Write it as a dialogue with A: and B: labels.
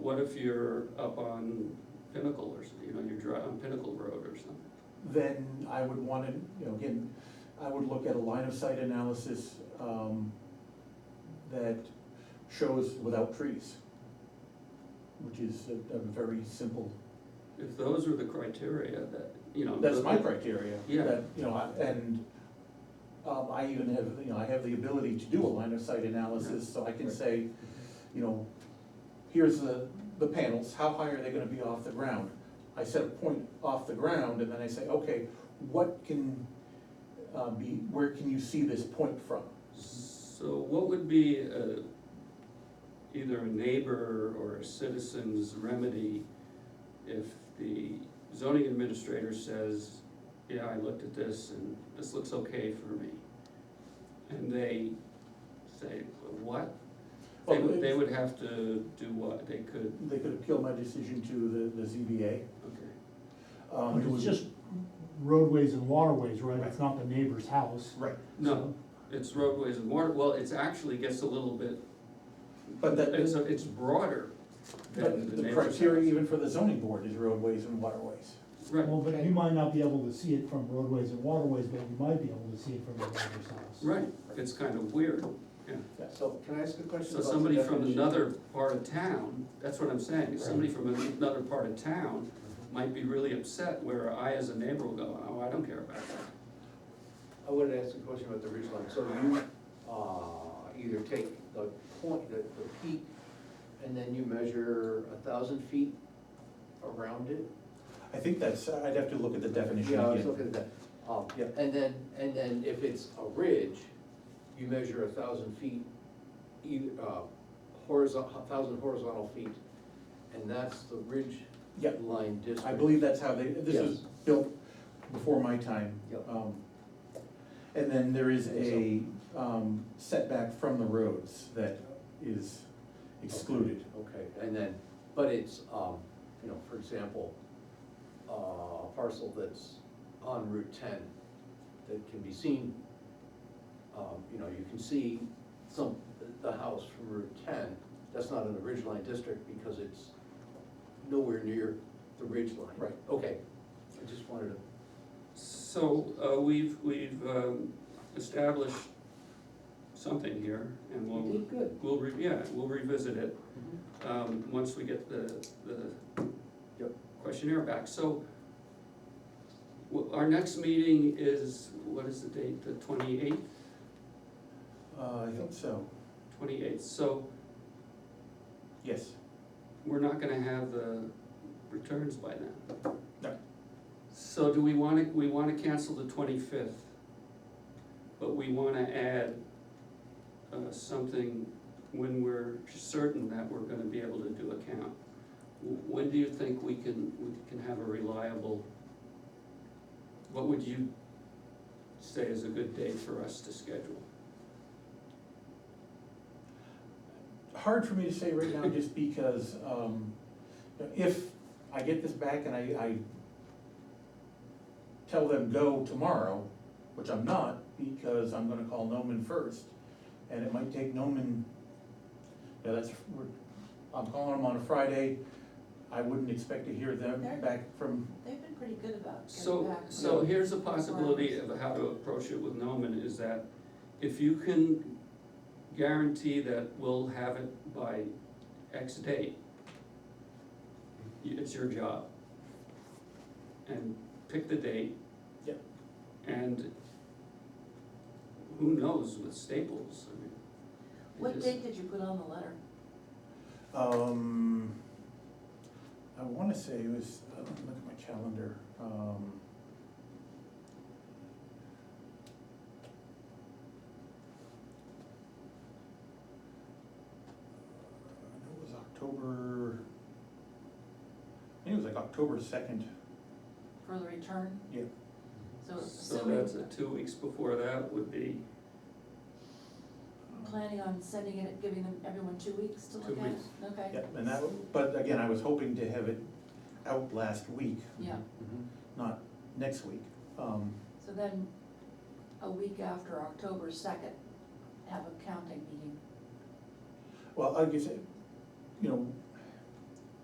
A: What if you're up on Pinnacle or, s- you know, you're dri- on Pinnacle Road or something?
B: then I would want to, you know, again, I would look at a line of sight analysis um, that shows without trees, which is a a very simple,
A: If those are the criteria that, you know.
B: that's
A: the-
B: my criteria.
A: Yeah.
B: that, You know, I- and um, I even have, you know, I have the ability to do a line of sight analysis, so I can
A: Right.
B: say, you know, here's the, the panels, how high are they gonna be off the ground? I set a point off the ground, and then I say, okay, what can, uh, be, where can you see this point from?
A: So what would be, uh, either a neighbor or a citizen's remedy if the zoning administrator says, yeah, I looked at this and this looks okay for me? And they say, what? They
B: Well,
A: would, they
B: it-
A: would have to do what? They could,
B: They could appeal my decision to the, the ZBA.
A: okay.
B: um,
C: But
B: it
C: it's
B: would-
C: just roadways and waterways, right? It's not the neighbor's house.
B: Right,
A: No, it's roadways and water, well, it's actually gets a little bit,
B: but that,
A: it's, it's broader than
B: but
A: the
B: the
A: neighbor's
B: criteria
A: house.
B: even for the zoning board is roadways and waterways.
A: Right,
C: Well, but you might not be able to see it from roadways and waterways, but you might be able to see it from the neighbor's house.
A: right, it's kind of weird, yeah.
D: So can I ask a question?
A: So
D: about the
A: somebody from
D: definition?
A: another part of town, that's what I'm saying, is somebody from another part of town might be really upset where I as a neighbor will go, oh, I don't care about that.
D: I wanted to ask a question about the ridge line. So you, uh, either take the point, the, the peak, and then you measure a thousand feet around it?
B: I think that's, I'd have to look at the definition
D: Yeah, I was
B: again.
D: looking at that. Um,
B: Yeah.
D: And then, and then if it's a ridge, you measure a thousand feet, either, uh, horizontal, a thousand horizontal feet, and that's the ridge
B: Yeah.
D: line district.
B: I believe that's how they, this was
D: Yes.
B: built before my time.
D: Yep.
B: Um, And then there is a um, setback from the roads that is excluded.
D: Okay, and then, but it's, um, you know, for example, uh, a parcel that's on Route ten that can be seen, um, you know, you can see some, the house from Route ten, that's not in the ridge line district because it's nowhere near the ridge line.
B: Right.
D: Okay, I just wanted to,
A: So, uh, we've, we've, um, established something here and
D: you
A: we'll,
D: did good. Mm-hmm.
A: we'll, re- yeah, we'll revisit it. um, once we get the, the
D: Yep.
A: questionnaire back, so wh- our next meeting is, what is the date, the twenty-eighth,
B: Uh, I think so,
A: twenty-eighth, so
B: yes.
A: we're not gonna have the returns by then.
B: No.
A: So do we wanna, we wanna cancel the twenty-fifth, but we wanna add, uh, something when we're certain that we're gonna be able to do a count. Wh- When do you think we can, we can have a reliable, what would you say is a good day for us to schedule?
B: Hard for me to say right now, just because um, if I get this back and I, I tell them go tomorrow, which I'm not, because I'm gonna call Noman first, and it might take Noman, yeah, that's, we're- I'm calling them on a Friday, I wouldn't expect to hear them
E: They're-
B: back from,
E: They've been pretty good about getting
A: So,
E: back.
A: so here's a possibility of how to approach it with Noman, is that if you can guarantee that we'll have it by X date, you- it's your job. And pick the date.
B: Yep.
A: And who knows with Staples, I mean. they
E: What
A: just-
E: date did you put on the letter?
B: um, I wanna say it was, uh, look at my calendar, um. I know it was October, I think it was like October second,
E: For the return?
B: yeah.
E: So
A: So
E: assuming,
A: that's, uh, two weeks before that would be
E: planning on sending it, giving them, everyone two weeks to look at
A: Two
E: it?
A: weeks.
E: Okay.
B: Yep, and that, but again, I was hoping to have it out last week,
E: Yeah,
B: not next week. Um,
A: Mm-hmm.
E: so then, a week after October second, have a counting meeting.
B: Well, like you said, you know,